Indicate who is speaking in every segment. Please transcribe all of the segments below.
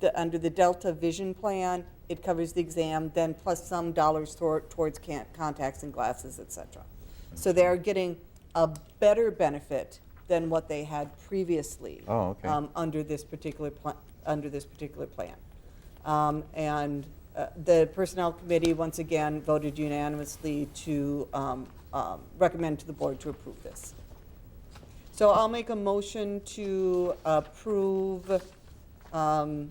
Speaker 1: the, under the Delta Vision Plan, it covers the exam, then plus some dollars tor- towards can- contacts and glasses, et cetera. So they are getting a better benefit than what they had previously.
Speaker 2: Oh, okay.
Speaker 1: um, under this particular plan, under this particular plan. Um, And uh, the Personnel Committee, once again, voted unanimously to um, um, recommend to the board to approve this. So I'll make a motion to approve um,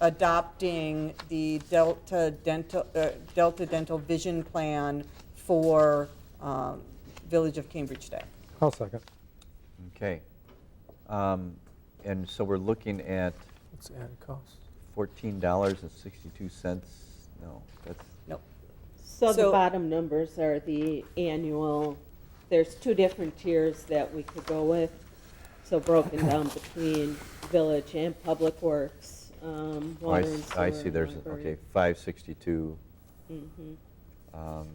Speaker 1: adopting the Delta Dental, uh, Delta Dental Vision Plan for um, Village of Cambridge Day.
Speaker 3: I'll second.
Speaker 2: Okay. Um, And so we're looking at
Speaker 3: It's added cost.
Speaker 2: $14.62, no, that's,
Speaker 1: Nope.
Speaker 4: So
Speaker 1: So-
Speaker 4: the bottom numbers are the annual, there's two different tiers that we could go with. So broken down between village and public works, um,
Speaker 2: oh, I
Speaker 4: water and
Speaker 2: s-
Speaker 4: sewer.
Speaker 2: I see,
Speaker 4: and
Speaker 2: there's,
Speaker 4: library.
Speaker 2: okay, 562
Speaker 4: Mhm.
Speaker 2: um,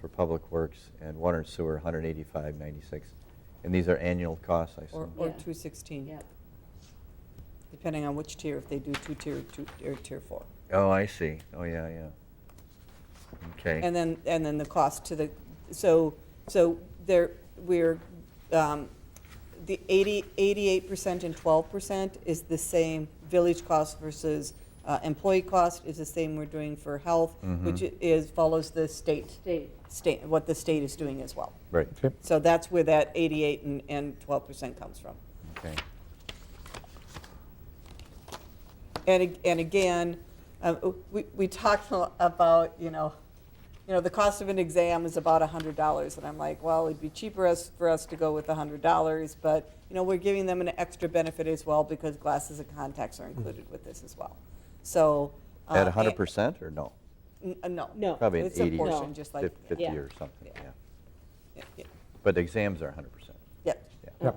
Speaker 2: for Public Works and Water and Sewer, 185.96. And these are annual costs, I
Speaker 1: Or,
Speaker 2: assume?
Speaker 1: or
Speaker 4: Yeah.
Speaker 1: 216.
Speaker 4: Yep.
Speaker 1: depending on which tier, if they do two-tier, two, or tier four.
Speaker 2: Oh, I see, oh, yeah, yeah. Okay,
Speaker 1: And then, and then the cost to the, so, so there, we're, um, the 80, 88% and 12% is the same village cost versus uh, employee cost is the same we're doing for health, which i- is, follows the state,
Speaker 4: State.
Speaker 1: state, what the state is doing as well.
Speaker 2: right,
Speaker 3: Okay.
Speaker 1: So that's where that 88 and, and 12% comes from.
Speaker 2: okay.
Speaker 1: And, ag- and again, uh, we, we talked a- about, you know, you know, the cost of an exam is about $100. And I'm like, well, it'd be cheaper us, for us to go with $100, but, you know, we're giving them an extra benefit as well because glasses and contacts are included with this as well. So. uh,
Speaker 2: Hmm. At 100% or no?
Speaker 1: and- n- uh, No.
Speaker 4: No.
Speaker 2: Probably an
Speaker 1: It's a
Speaker 2: 80,
Speaker 1: portion,
Speaker 4: No.
Speaker 1: just like.
Speaker 2: 50
Speaker 4: Yeah.
Speaker 2: or something,
Speaker 1: Yeah.
Speaker 2: yeah.
Speaker 1: yeah, yeah,
Speaker 2: But the exams are 100%.
Speaker 1: Yeah.
Speaker 3: Yeah.
Speaker 4: Um,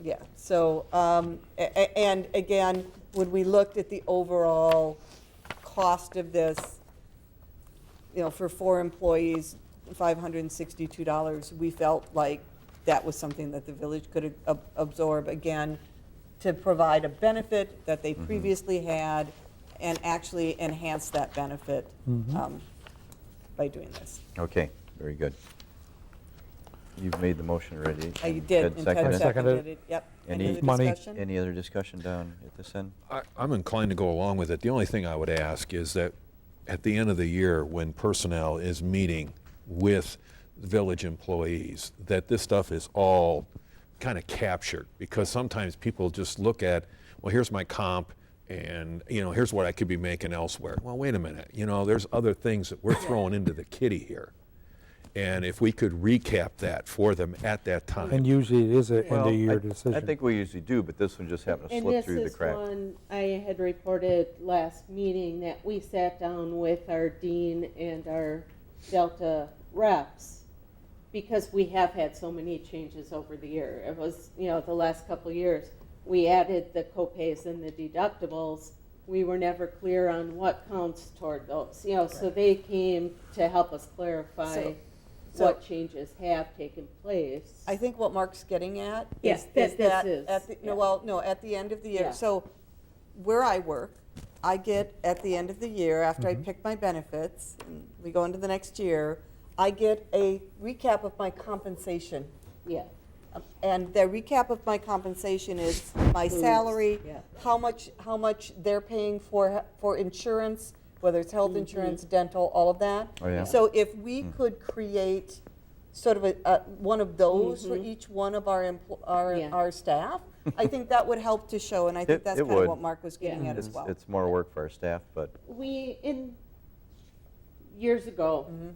Speaker 1: Yeah, so, um, a- a- and again, when we looked at the overall cost of this, you know, for four employees, $562, we felt like that was something that the village could ab- absorb, again, to provide a benefit that
Speaker 2: Mm-hmm.
Speaker 1: they previously had and actually enhance that benefit
Speaker 2: Mm-hmm.
Speaker 1: um, by doing this.
Speaker 2: Okay, very good. You've made the motion already.
Speaker 1: I
Speaker 2: and
Speaker 1: Oh, did,
Speaker 2: Ted
Speaker 1: and
Speaker 2: seconded
Speaker 1: Ted
Speaker 2: it.
Speaker 3: Seconded.
Speaker 1: seconded it, yep.
Speaker 2: Any-
Speaker 1: Any other
Speaker 3: Money.
Speaker 1: discussion?
Speaker 2: Any other discussion down at this end?
Speaker 5: I, I'm inclined to go along with it. The only thing I would ask is that at the end of the year, when personnel is meeting with village employees, that this stuff is all kind of captured because sometimes people just look at, well, here's my comp and you know here's what I could be making elsewhere. Well, wait a minute. You know, there's other things that we're throwing into the kitty here. And if we could recap that for them at that time.
Speaker 3: And usually it is an
Speaker 2: Well, I-
Speaker 3: end-of-year decision.
Speaker 2: I think we usually do, but this one just happened to
Speaker 4: And
Speaker 2: slip
Speaker 4: this
Speaker 2: through the
Speaker 4: is
Speaker 2: crack.
Speaker 4: one I had reported last meeting that we sat down with our dean and our Delta reps because we have had so many changes over the year. It was, you know, the last couple of years, we added the copays and the deductibles. We were never clear on what counts toward those, you know, so they came to help us clarify
Speaker 1: So- so-
Speaker 4: what changes have taken place.
Speaker 1: I think what Mark's getting at
Speaker 4: Yeah,
Speaker 1: is,
Speaker 4: that-
Speaker 1: is
Speaker 4: this
Speaker 1: that,
Speaker 4: is,
Speaker 1: at the, no,
Speaker 4: yeah.
Speaker 1: well, no, at the end of the
Speaker 4: Yeah.
Speaker 1: year, so where I work, I get at the end of the year, after I pick my benefits, and we go into the next year, I get a recap of my compensation.
Speaker 4: Yeah,
Speaker 1: And the recap of my compensation is my salary,
Speaker 4: yeah.
Speaker 1: how much, how much they're paying for, for insurance, whether it's
Speaker 4: Mm-hmm.
Speaker 1: health insurance, dental, all of that.
Speaker 2: Oh, yeah. Mm.
Speaker 1: So if we could create sort of a, a, one of those for each one of our, empl- our,
Speaker 4: Mm-hmm. Yeah.
Speaker 1: our staff, I think that would help to show, and I think
Speaker 2: It-
Speaker 1: that's
Speaker 2: it
Speaker 1: kind of
Speaker 2: would.
Speaker 1: what Mark was getting
Speaker 4: Yeah.
Speaker 1: at as
Speaker 2: It's
Speaker 1: well.
Speaker 2: it's more work for our staff, but
Speaker 4: we in years ago
Speaker 1: Mm-hmm.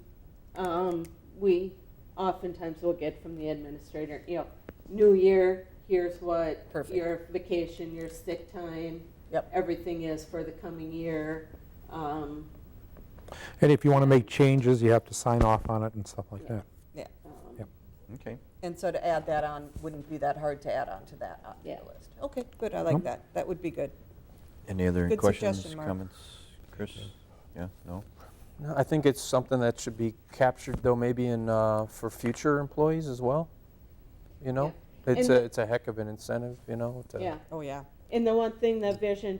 Speaker 4: um, we oftentimes will get from the administrator you know new year here's what
Speaker 1: Perfect.
Speaker 4: your vacation your sick time
Speaker 1: Yep.
Speaker 4: everything is for the coming year um,
Speaker 3: And if you want to make changes, you have to sign off on it and stuff like that.
Speaker 1: Yeah,
Speaker 4: um,
Speaker 3: Yep.
Speaker 2: okay.
Speaker 1: and so to add that on, wouldn't be that hard to add on to that, on the
Speaker 4: Yeah.
Speaker 1: list. Okay, good, I like that, that would be good.
Speaker 2: Any other
Speaker 1: Good
Speaker 2: questions,
Speaker 1: suggestion, Mark.
Speaker 2: comments? Chris? Yeah, no?
Speaker 6: No, I think it's something that should be captured, though, maybe in, uh, for future employees as well, you know?
Speaker 4: Yeah.
Speaker 6: It's
Speaker 4: And
Speaker 6: a,
Speaker 4: the-
Speaker 6: it's a heck of an incentive, you know, to.
Speaker 4: yeah
Speaker 1: Oh, yeah.
Speaker 4: and the one thing that vision